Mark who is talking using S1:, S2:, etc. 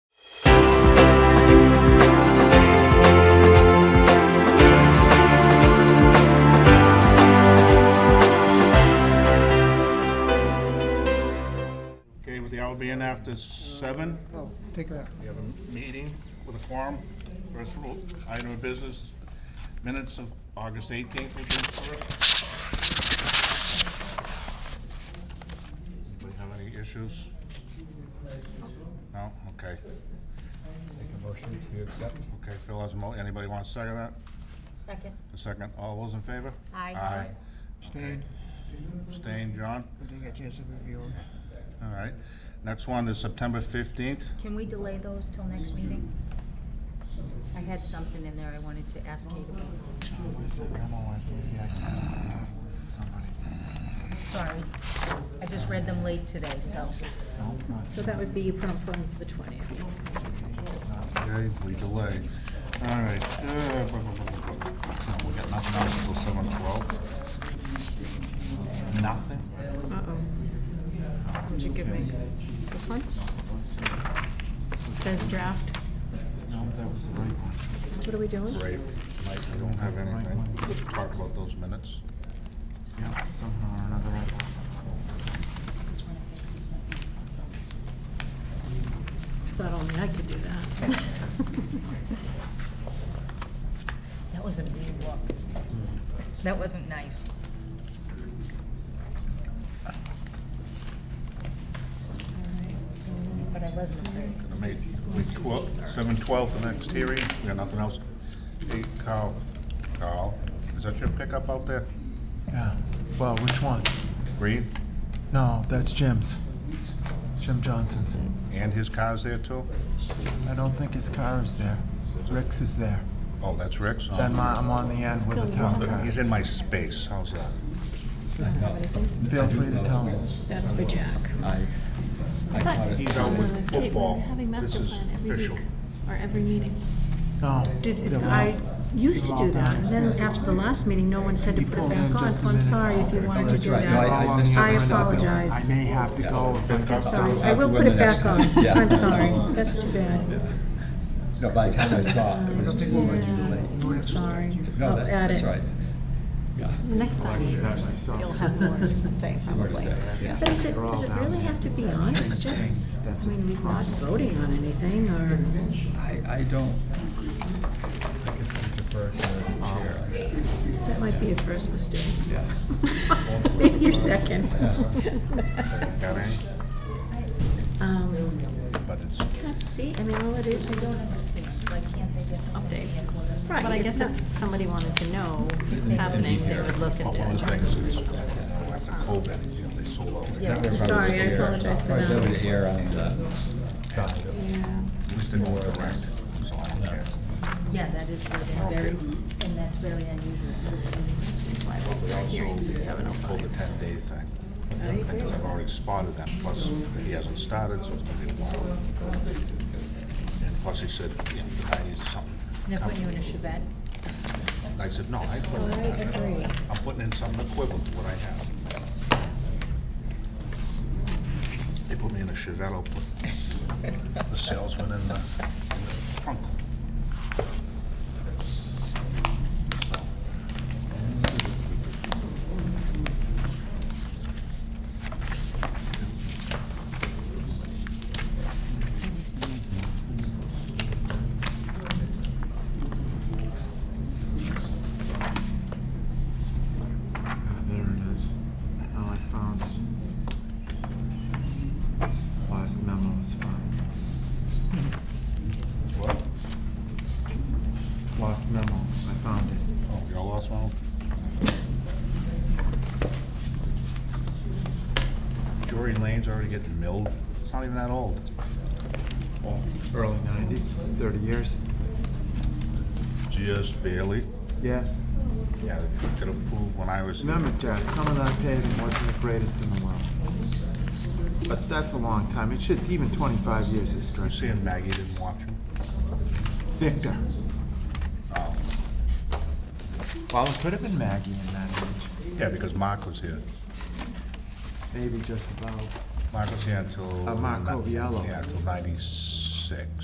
S1: is seven,
S2: Oh, take that.
S1: we have a meeting with a quorum, first rule, item of business, minutes of August eighteenth, which is first. Anybody have any issues? No, okay,
S3: Make a motion to accept.
S1: okay, Phil has a mo, anybody want to second that?
S4: Second.
S1: The second, all those in favor?
S4: Aye.
S1: Aye.
S2: Stayed,
S1: Abstain, John?
S2: but they got a chance to review it.
S1: All right. Next one is September fifteenth.
S4: Can we delay those till next meeting? I had something in there I wanted to ask Kate about. Sorry, I just read them late today, so.
S5: So that would be you put on for the twentieth.
S1: Okay, we delay. All right. uh, blah, blah, blah, blah, blah.
S3: No, we got nothing else until seven twelve. Nothing?
S5: Uh-oh. What'd you give me? This one? Says draft.
S3: No, that was the right one.
S5: What are we doing?
S1: Great. Tonight, we don't have anything. We can Talk about those minutes.
S3: Yeah, somehow or another, I lost
S4: Just wanna fix the sentence, that's all.
S5: Thought only I could do that.
S4: That was a mean look. That wasn't nice. But I wasn't afraid.
S1: Gonna make, we twelve, seven twelve for next hearing. We got nothing else. Hey, Carl, Carl, is that your pickup out there?
S6: Yeah. Well, which one?
S1: Green?
S6: No, that's Jim's. Jim Johnson's.
S1: And his car's there too?
S6: I don't think his car is there. Rick's is there.
S1: Oh, that's Rick's? Oh.
S6: Then my, I'm on the end with the town car.
S1: He's in my space. How's that?
S6: Feel free to tell me.
S5: That's for Jack.
S3: I, I caught it.
S1: He's
S5: Uh,
S1: out with
S7: Hey, we're
S1: football.
S7: having
S1: This
S7: master
S1: is
S7: plan every
S1: official.
S7: week, or every meeting.
S6: No.
S5: Did,
S6: there won't.
S5: I used to do that, and then after the last meeting, no one said to put it back on, so I'm sorry if you wanted to
S3: That's
S5: do
S3: right. No, I,
S5: that.
S3: I missed it.
S5: I
S6: I'm not building.
S5: apologize.
S6: I may have to go if I get
S5: Sorry,
S6: some.
S5: I will put it back on,
S3: Yeah.
S5: I'm sorry, that's too bad,
S3: No, by the time I saw it, it was too late.
S5: sorry,
S3: No,
S5: I'll
S3: that's,
S5: add
S3: that's
S5: it.
S3: right.
S8: Next time, you'll have more to say,
S3: More to
S8: probably.
S3: say, yeah.
S5: But is it, does it really have to be on, it's just, I mean, we're not voting on anything, or,
S3: I, I don't. I guess I defer to the chair.
S5: that might be a first mistake.
S3: Yeah.
S5: Maybe your second.
S1: Got any?
S5: Um,
S1: But it's
S5: Let's see, I mean, all it is
S4: I don't
S5: is,
S4: understand, why can't they just?
S8: Updates.
S5: right,
S8: But I
S5: it's
S8: guess
S5: not,
S8: if somebody wanted to know what's happening, they would look at
S1: one of
S8: that.
S1: those things is, after COVID, you know, they sold out.
S4: Yeah.
S1: At
S5: sorry, I apologize for
S3: Right, there was
S5: that.
S3: the air on the side of it.
S5: Yeah.
S1: least in North Direct, so I don't care.
S4: Yeah, that is really very, and that's very unusual.
S8: This is why we start hearings at seven oh
S1: Pulled the
S8: five.
S1: ten day thing. Because I've already spotted them, plus he hasn't started, so it's gonna be a while. And plus he said, you know, I need something.
S4: They're putting you in a Chevette?
S1: And I said, no, I put
S4: I agree.
S1: I'm putting in something equivalent to what I have. They put me in a Chevelle, I'll put the salesman in the in the trunk.
S6: Ah, There it is. Now I found it. Last memo was found.
S1: What?
S6: Last memo, I found it.
S1: Oh, you all lost one? Jory Lane's already getting milled. It's not even that old.
S6: Early nineties, thirty years.
S1: Just barely.
S6: Yeah.
S1: Yeah, they could approve when I was.
S6: Remember, Jack, some of that paving wasn't the greatest in the world. But that's a long time. It should, even twenty-five years is
S1: You
S6: stretching.
S1: seeing Maggie didn't watch him?
S6: Victor.
S1: Oh,
S6: Well, it could have been Maggie in that age.
S1: yeah, because Mark was here.
S6: Maybe just about.
S1: Mark was here until.
S6: Uh, Mark Coviello.
S1: Yeah, until ninety-six.